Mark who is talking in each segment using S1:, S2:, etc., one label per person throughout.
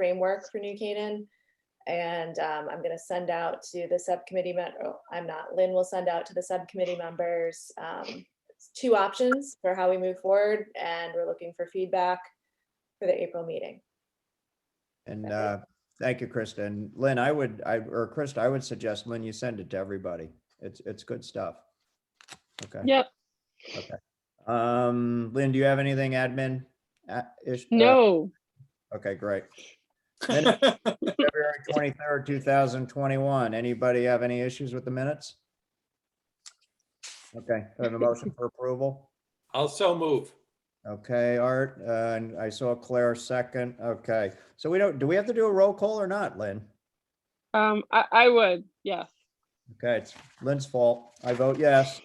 S1: framework for New Canaan. And um, I'm gonna send out to the subcommittee, men- oh, I'm not, Lynn will send out to the subcommittee members um, two options for how we move forward, and we're looking for feedback for the April meeting.
S2: And
S1: Okay.
S2: uh, thank you, Krista. And Lynn, I would, I, or Krista, I would suggest, Lynn, you send it to everybody. It's, it's good stuff. Okay.
S3: Yep.
S2: Um, Lynn, do you have anything admin? uh, ish- uh,
S3: No.
S2: Okay, great. Minutes, February twenty-third, two thousand twenty-one. Anybody have any issues with the minutes? Okay, I have a motion for approval.
S4: Also move.
S2: Okay, Art, uh, and I saw Claire second. Okay, so we don't, do we have to do a roll call or not, Lynn?
S3: Um, I, I would, yes.
S2: Okay, it's Lynn's fault. I vote yes.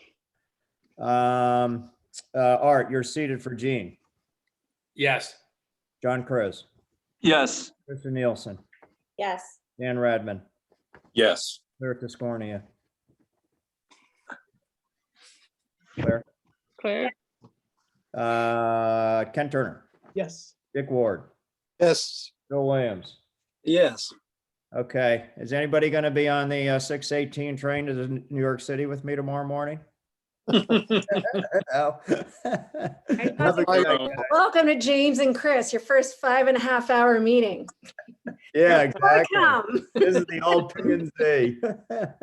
S2: Um, uh, Art, you're seated for Gene.
S4: Yes.
S2: John Chris,
S5: Yes.
S2: Krista Nielsen,
S1: Yes,
S2: Dan Radman,
S5: Yes.
S2: Claire Tiscornia. Claire,
S3: Claire?
S2: uh, Ken Turner,
S4: Yes.
S2: Dick Ward,
S5: Yes.
S2: Bill Williams.
S5: Yes.
S2: Okay, is anybody going to be on the uh, 618 train to the N- New York City with me tomorrow morning? Oh. Have a good night.
S6: Welcome to James and Chris, your first five and a half hour meeting.
S2: Yeah, exactly.
S6: Welcome.
S2: This is the old P and Z.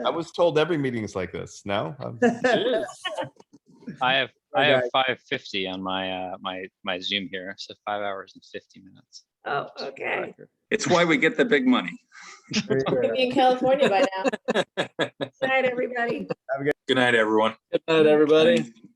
S7: I was told every meeting's like this. No? Um,
S8: I have, I
S2: Okay.
S8: have five fifty on my, uh, my, my Zoom here, so five hours and fifty minutes.
S6: Oh,
S8: just for the
S6: okay.
S8: record.
S5: It's why we get the big money.
S1: we'll be in California by now.
S6: Good night, everybody.
S5: Good night, everyone.
S9: Good night, everybody.